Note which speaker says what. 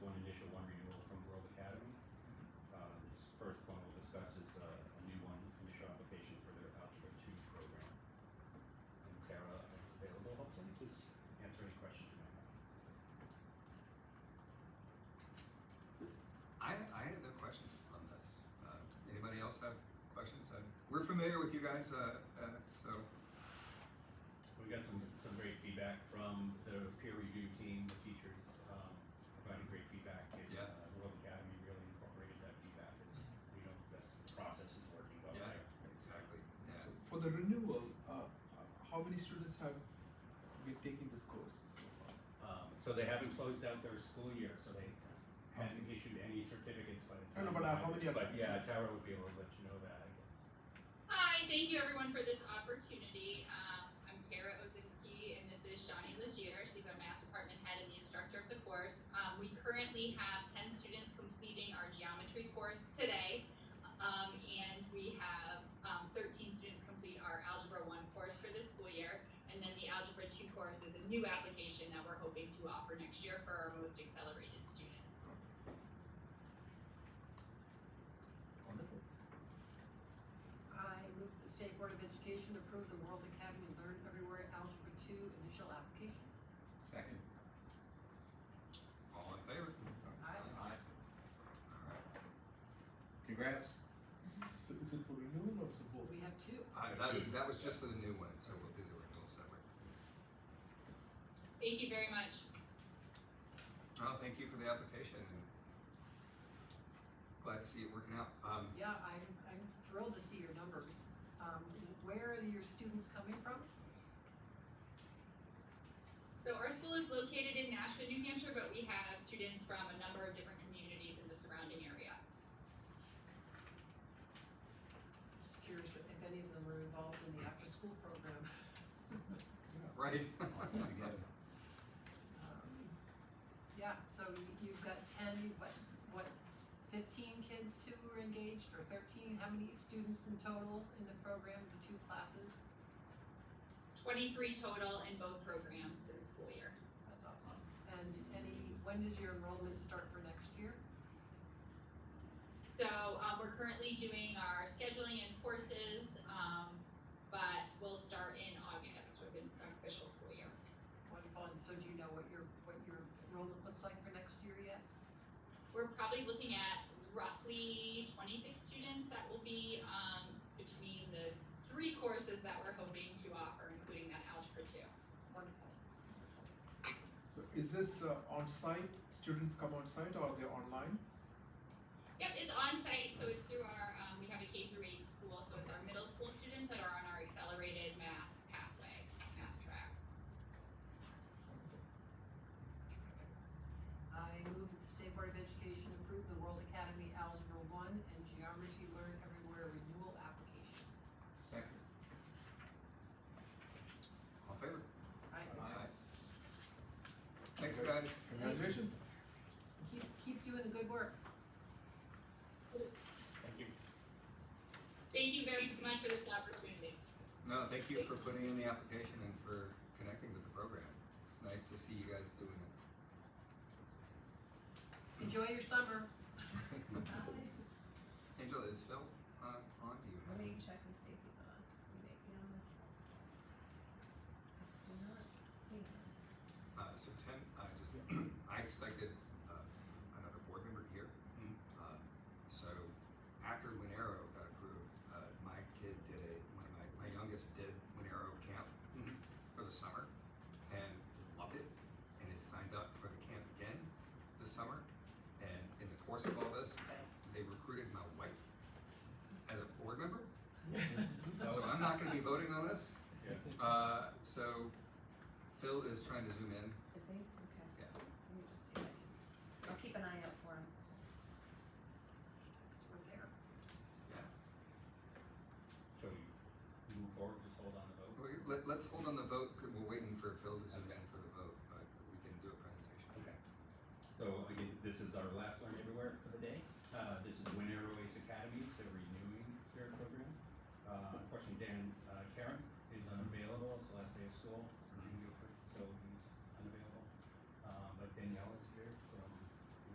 Speaker 1: Uh,
Speaker 2: Uh, questions. Uh, we're familiar with you guys, uh, uh, so
Speaker 1: We got some, some great feedback from the peer review team, the teachers, um, provided great feedback. and,
Speaker 2: Yeah.
Speaker 1: uh, World Academy really incorporated that feedback, it's, you know, that's, the process is working well
Speaker 2: Yeah.
Speaker 1: there.
Speaker 2: exactly.
Speaker 3: So
Speaker 2: Yeah.
Speaker 3: for the renewal, uh, how many students have been taking this course so far?
Speaker 1: Um, so they haven't closed out their school year, so they haven't issued any certificates by the
Speaker 3: I
Speaker 1: time.
Speaker 3: don't know, but, uh, how many
Speaker 1: But
Speaker 3: applications?
Speaker 1: yeah, Tara would be able to let you know that, I guess.
Speaker 4: Hi, thank you everyone for this opportunity. Um, I'm Kara Ozinski and this is Shawnee Legier. She's our math department head and the instructor of the course. Um, we currently have 10 students completing our geometry course today. Um, and we have um, 13 students complete our Algebra 1 course for this school year. And then the Algebra 2 course is a new application that we're hoping to offer next year for our most accelerated students.
Speaker 3: Wonderful.
Speaker 5: I move that the State Board of Education approve the World Academy Learn Everywhere Algebra Two initial application.
Speaker 3: Second.
Speaker 2: All in favor? All
Speaker 5: Aye.
Speaker 6: Congrats.
Speaker 3: So is it for renewal or is it both?
Speaker 5: We have two.
Speaker 2: right. Uh, that was that was just for the new one, so we'll do the renewal separate.
Speaker 4: Thank you very much.
Speaker 2: Well, thank you for the application. and Glad to see it working out. Um,
Speaker 5: Yeah, I'm, I'm thrilled to see your numbers. Um, where are your students coming from?
Speaker 4: So our school is located in Nashville, New Hampshire, but we have students from a number of different communities in the surrounding area.
Speaker 5: Just curious if any of them are involved in the after-school program.
Speaker 2: right.
Speaker 5: Um, Yeah, so you- you've got ten, what, what, fifteen kids who were engaged or thirteen? How many students in total in the program, the two classes?
Speaker 4: Twenty-three total in both programs this school year.
Speaker 5: That's awesome. And any, when does your enrollment start for next year?
Speaker 4: So, um, we're currently doing our scheduling and courses, um, but we'll start in August with an official school year.
Speaker 5: Wonderful, and so do you know what your, what your enrollment looks like for next year yet?
Speaker 4: We're probably looking at roughly twenty-six students that will be, um, between the three courses that we're hoping to offer, including that Algebra two.
Speaker 5: Wonderful.
Speaker 3: So is this uh, on-site, students come on-site or they're online?
Speaker 4: Yep, it's on site, so it's through our, um, we have a K through eight school, so it's our middle school students that are on our accelerated math pathway, math track.
Speaker 5: I move that the State Board of Education approve the World Academy Algebra One and Geometry Learn Everywhere renewal application.
Speaker 6: Second.
Speaker 2: All in favor?
Speaker 5: Right,
Speaker 2: Aye. Thanks, guys.
Speaker 3: Congratulations.
Speaker 5: keep, keep doing the good work.
Speaker 1: Thank you.
Speaker 4: Thank you very much for this opportunity.
Speaker 2: No, thank you for putting in the application and for connecting with the program. It's nice to see you guys doing it.
Speaker 5: Enjoy your summer.
Speaker 2: Angela, is Phil on, on Do you?
Speaker 7: Let
Speaker 2: have-
Speaker 7: me check and see if he's on. We may be on the- I do not see him.
Speaker 2: Uh, so ten, I just, I expected, uh, another board member here.
Speaker 1: Mm.
Speaker 2: Um, So after Winero got approved, uh, my kid did a, my, my, my youngest did Winero camp
Speaker 1: Mhm.
Speaker 2: for the summer and loved it and is signed up for the camp again this summer. And in the course of all this, they recruited my wife as a board member. So I'm not gonna be voting on this.
Speaker 1: Yeah.
Speaker 2: Uh, so Phil is trying to zoom in.
Speaker 7: Is he? Okay.
Speaker 2: Yeah.
Speaker 7: Let me just see. if I can- I'll keep an eye out for him.
Speaker 5: So we're there.
Speaker 1: So you move forward, just hold on the vote.
Speaker 2: We- Let, let's hold on the vote, 'cause we're waiting for Phil to zoom in for the vote, but we can do a presentation.
Speaker 1: Okay. So again, this is our last Learn Everywhere for the day. Uh, this is Win Airways Academies, they're renewing their program. Uh, unfortunately, Dan, uh, Karen is unavailable, it's the last day of school, for New Guilford, so he's unavailable. Uh, but Danielle is